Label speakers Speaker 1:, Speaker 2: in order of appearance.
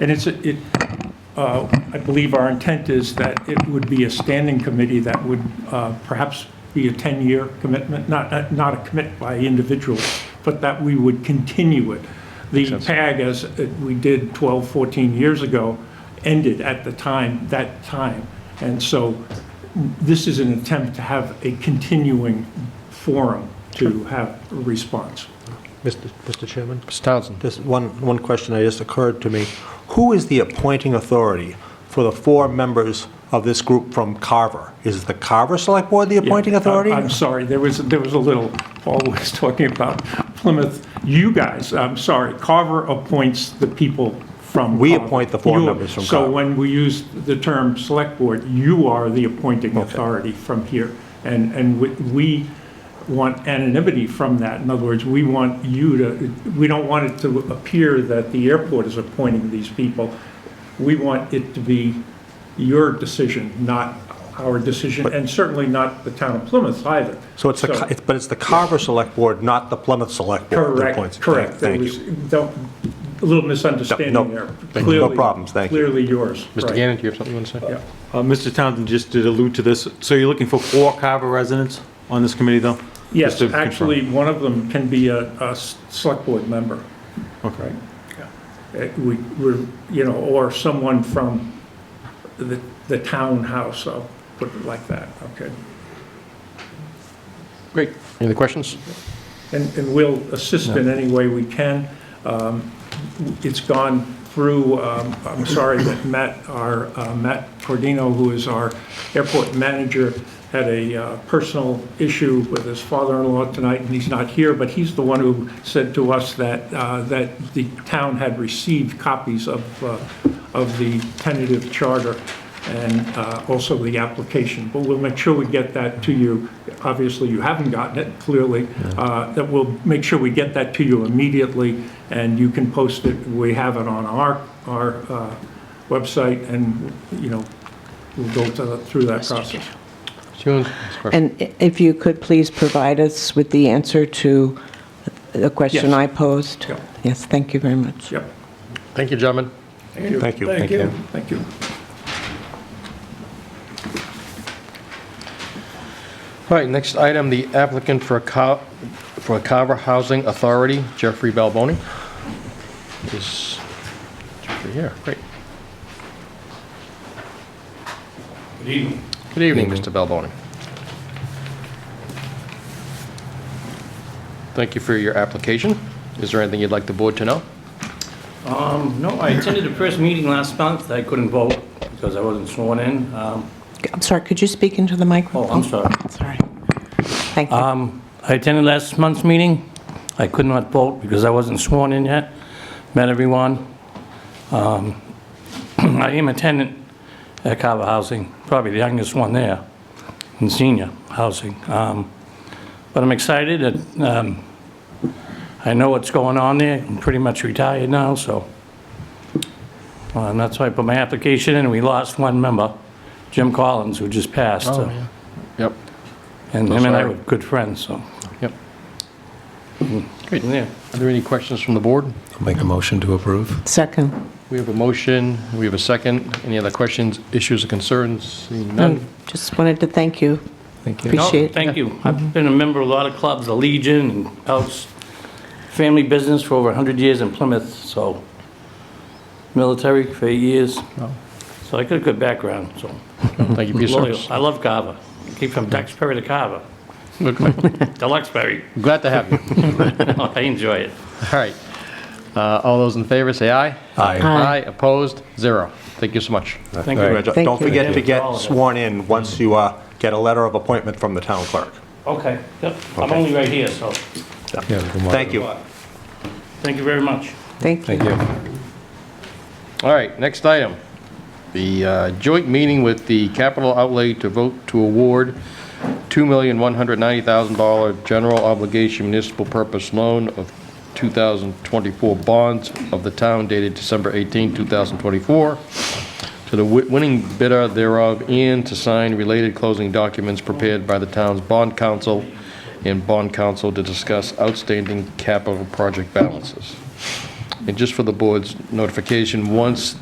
Speaker 1: And it's, it, uh, I believe our intent is that it would be a standing committee that would uh, perhaps be a 10-year commitment, not, not- not a commit by individual, but that we would continue it. The PAG, as it- we did 12, 14 years ago, ended at the time, that time. And so this is an attempt to have a continuing forum to have a response.
Speaker 2: Mr. Mr. Chairman,
Speaker 3: Mr. Townsend.
Speaker 2: just one, one question that just occurred to me. Who is the appointing authority for the four members of this group from Carver? Is the Carver Select Board the appointing
Speaker 1: Yeah, I-
Speaker 2: authority?
Speaker 1: I'm sorry, there was, there was a little, Paul was talking about Plymouth, you guys, I'm sorry, Carver appoints the people from.
Speaker 2: We
Speaker 1: Carver.
Speaker 2: appoint the four
Speaker 1: You-
Speaker 2: members from
Speaker 1: So
Speaker 2: Carver.
Speaker 1: when we use the term select board, you are the appointing authority from here. And, and we- we want anonymity from that. In other words, we want you to, we don't want it to appear that the airport is appointing these people. We want it to be your decision, not our decision, and certainly not the town of Plymouth either.
Speaker 2: So it's the, Ca- it's- but it's the Carver Select Board, not the Plymouth Select Board that appoints.
Speaker 1: Correct, correct.
Speaker 2: Thank-
Speaker 1: There
Speaker 2: Thank
Speaker 1: was,
Speaker 2: you.
Speaker 1: don't- a little misunderstanding
Speaker 2: Nope.
Speaker 1: there.
Speaker 2: No
Speaker 1: Clearly-
Speaker 2: problems, thank you.
Speaker 1: Clearly yours.
Speaker 3: Mr.
Speaker 1: right.
Speaker 3: Gannon, do you have something you want to say?
Speaker 1: Yeah.
Speaker 4: Uh, Mr. Townsend just did allude to this. So you're looking for four Carver residents on this committee, though? Just
Speaker 1: Yes,
Speaker 4: to confirm.
Speaker 1: actually, one of them can be a, a s- select board member.
Speaker 4: Okay.
Speaker 1: Uh, We, we're, you know, or someone from the, the townhouse, I'll put it like that, okay?
Speaker 3: Great. Any other questions?
Speaker 1: and, and we'll assist in any way we can. Um, It's gone through, um, I'm sorry that Matt, our, uh, Matt Cordino, who is our airport manager, had a uh, personal issue with his father-in-law tonight, and he's not here, but he's the one who said to us that, uh, that the town had received copies of, uh, of the tentative charter and uh, also the application. But we'll make sure we get that to you. Obviously, you haven't gotten it, clearly. Uh, That we'll make sure we get that to you immediately, and you can post it. We have it on our, our uh, website, and, you know, we'll go to- through that process.
Speaker 3: Mr. Hewens, last question.
Speaker 5: And i- if you could please provide us with the answer to the question
Speaker 1: Yes.
Speaker 5: I posed?
Speaker 1: Yeah.
Speaker 5: Yes, thank you very much.
Speaker 1: Yep,
Speaker 3: Thank you, gentlemen.
Speaker 2: Thank you.
Speaker 6: Thank you.
Speaker 1: thank you.
Speaker 3: All right, next item, the applicant for a Ca- for a Carver Housing Authority, Jeffrey Balboni. Is Jeffrey here? Great. Good evening. Good evening, Mr. Balboni. Thank you for your application. Is there anything you'd like the board to know?
Speaker 6: Um, No, I attended the first meeting last month. I couldn't vote because I wasn't sworn in. Um,
Speaker 5: I'm sorry, could you speak into the microphone?
Speaker 6: Oh, I'm sorry.
Speaker 5: Sorry. Thank you.
Speaker 6: um, I attended last month's meeting. I could not vote because I wasn't sworn in yet. Met everyone. Um, I am a tenant at Carver Housing, probably the youngest one there, in senior housing. Um, But I'm excited that um, I know what's going on there. I'm pretty much retired now, so. Uh, And that's why I put my application in, we lost one member, Jim Collins, who just passed. so-
Speaker 3: Oh, Yep.
Speaker 6: And
Speaker 3: Oh,
Speaker 6: him and I
Speaker 3: sorry.
Speaker 6: were good friends, so.
Speaker 3: Yep.
Speaker 6: Great. Yeah.
Speaker 3: Are there any questions from the board?
Speaker 7: Make a motion to approve.
Speaker 5: Second.
Speaker 3: We have a motion, we have a second. Any other questions, issues, or concerns? Seeing none?
Speaker 5: Um, Just wanted to thank you.
Speaker 7: Thank you.
Speaker 6: No,
Speaker 5: Appreciate it.
Speaker 6: thank you. I've been a member of a lot of clubs, the Legion and Phelps, family business for over 100 years in Plymouth, so military for eight years. So I got a good background, so
Speaker 3: Oh, Thank you for your
Speaker 6: loyal.
Speaker 3: service.
Speaker 6: I love Carver. I Came from Duxbury to Carver,
Speaker 3: Glad
Speaker 6: Deluxeberry.
Speaker 3: to have you.
Speaker 6: I enjoy it.
Speaker 3: All right. Uh, All those in favor, say aye.
Speaker 2: Aye.
Speaker 3: Aye, opposed, zero. Thank you so much.
Speaker 6: Thank
Speaker 2: All right,
Speaker 6: you.
Speaker 2: Don't don't
Speaker 5: Thank you.
Speaker 2: forget to
Speaker 6: All
Speaker 2: get
Speaker 6: of it.
Speaker 2: sworn in once you uh, get a letter of appointment from the town clerk.
Speaker 6: Okay, yep, I'm
Speaker 2: Okay.
Speaker 6: only right here, so
Speaker 2: Thank you.
Speaker 6: thank you very much.
Speaker 5: Thank you.
Speaker 3: All right, next item. The uh, joint meeting with the capital outlay to vote to award $2,190,000 general obligation municipal purpose loan of 2024 bonds of the town dated December 18, 2024, to the wi- winning bidder thereof and to sign related closing documents prepared by the town's bond council and bond council to discuss outstanding capital project balances. And just for the board's notification, once